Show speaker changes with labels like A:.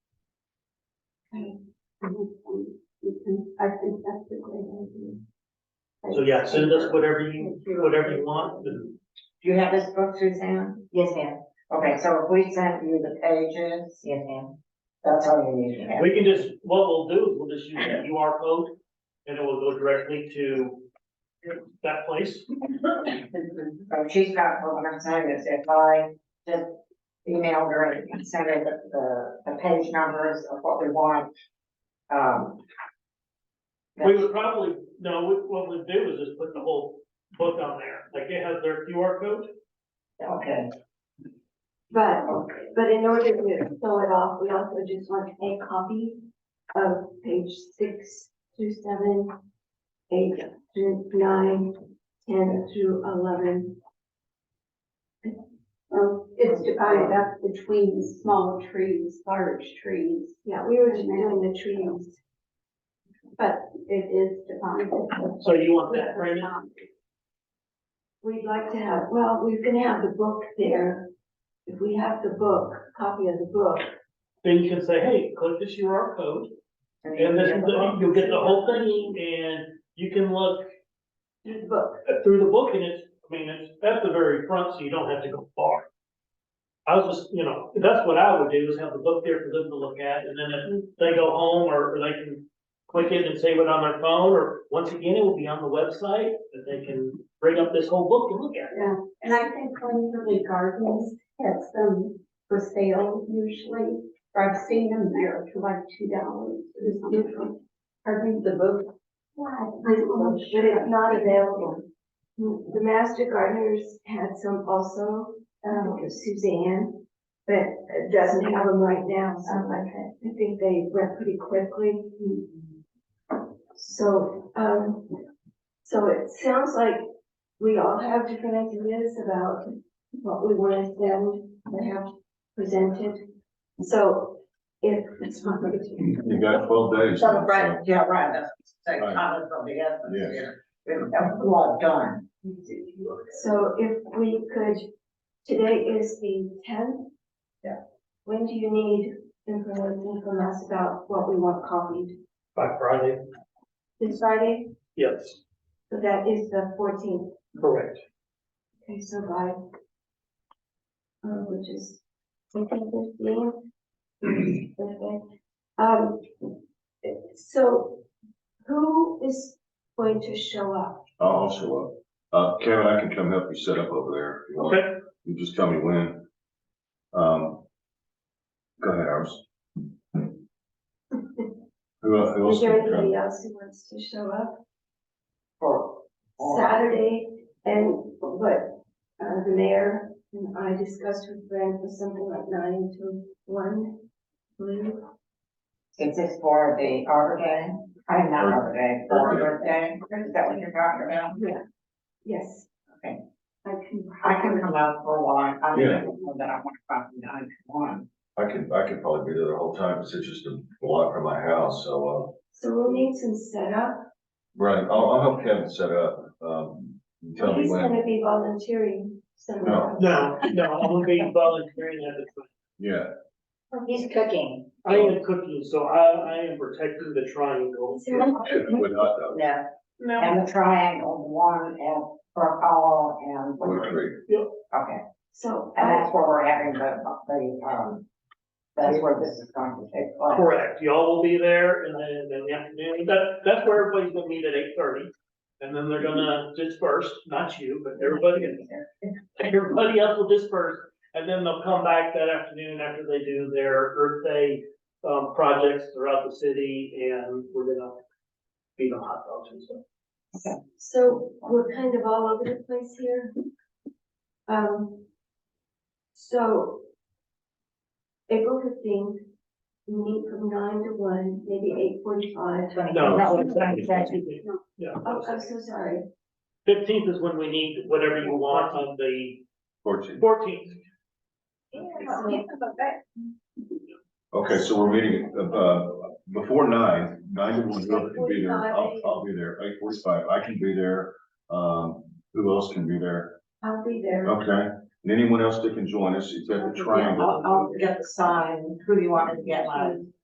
A: I think that's a great idea.
B: So yeah, send us whatever you, whatever you want, and
C: Do you have this book, Suzanne?
D: Yes, ma'am.
C: Okay, so if we send you the pages,
D: Yes, ma'am.
C: that's all you need to have.
B: we can just, what we'll do, is we'll just use the QR code, and it will go directly to that place.
C: So Oh, she's got, what I'm saying is if I just email her and send her the, the, the page numbers of what we want, um.
B: We would probably, no, we- what we'd do is just put the whole book on there, like it has their QR code.
C: Okay,
A: But,
C: okay.
A: but in order to fill it off, we also just want a copy of page six through seven, eight through nine, ten through eleven. Oh, it's, I, that's between small trees, large trees. Yeah, we were just doing the trees. But it is defined as a
B: So you want that, Brandon?
A: Um, We'd like to have, well, we can have the book there. If we have the book, copy of the book.
B: Then you can say, hey, click this QR code, and this, is the- you'll get the whole thing, and you can look
A: The book.
B: through the book, and it's, I mean, it's at the very front, so you don't have to go far. I was just, you know, that's what I would do, is have the book there for them to look at, and then if they go home, or or they can click it and save it on their phone, or once again, it will be on the website, that they can bring up this whole book and look at it.
A: And I think one of the gardens has them for sale usually, or I've seen them there for like two dollars or something. Pardon the book? Yeah, I don't know, but it's not available. The Master Gardeners had some also, um, Suzanne, but it doesn't have them right now, so I I think they went pretty quickly. So, um, so it sounds like we all have different ideas about what we want them to have presented. So if it's not going to.
E: You got twelve days.
C: So, right, yeah, right, that's, the
E: Right.
C: comment from the essence
E: Yes.
C: here. We have a lot done.
A: So if we could, today is the tenth.
C: Yeah.
A: When do you need information from us about what we want copied?
B: By Friday?
A: This Friday,
B: Yes,
A: so that is the fourteenth,
B: correct.
A: okay, so by. Uh, which is fourteen fifteen. Okay. Um, so who is going to show up?
E: I'll also, uh, uh, Kevin, I can come help you set up over there. if you want.
B: Okay,
E: You just tell me when. Um, go ahead, Iris. Who el- who else?
A: Is there
E: can come?
A: anybody else who wants to show up?
C: For- for-
A: Saturday, and what, uh, the mayor and I discussed with Brent was something like nine to one, blue.
C: Is this for the Arbor Day? I mean, not Arbor Day, Arbor
E: Arbor
C: Day, is that what you're talking about?
A: Yes.
C: Okay.
A: I can.
C: I can come out for a while, I don't
E: Yeah.
C: know that I want to come from nine to one.
E: I can, I can probably be there the whole time, 'cause it's just a block from my house, so, uh,
A: So we'll need some setup.
E: right, I'll, I'll help Kevin set up, um, you tell me
A: He's
E: when. Oh.
A: gonna be volunteering somewhere.
E: No.
B: no, no, I'm gonna be volunteering at the,
E: Yeah,
D: He's cooking.
B: I am cooking, so I, I am protecting the triangle.
A: Is there a-
E: with hot dog,
C: Yeah.
B: No,
C: And the triangle, one and for all and,
E: with creek.
C: okay,
A: So,
C: and
A: uh,
C: that's where we're having the, the, um, that's where this is going to take place.
B: correct, y'all will be there and then in the afternoon, that, that's where everybody's gonna meet at eight thirty. And then they're gonna disperse, not you, but everybody, everybody else will disperse. And then they'll come back that afternoon after they do their Earth Day, um, projects throughout the city and we're gonna feed them hot dogs and stuff.
A: so we're kind of all over the place here. Um, so April fifteenth, meet from nine to one, maybe eight forty-five.
B: No.
A: Oh,
B: Yeah.
A: I'm so sorry.
B: Fifteenth is when we need whatever you want on the
E: Fourteen.
B: fourteenth.
E: Okay, so we're meeting, uh, before nine, nine to one, Bill can be there, I'll, I'll be there, eight forty-five, I can be there. Um, who else can be there?
A: I'll be there.
E: Okay, and anyone else that can join us, it's at the
C: Yeah, I'll,
E: triangle.
C: I'll get the sign, who do you want me to get, like,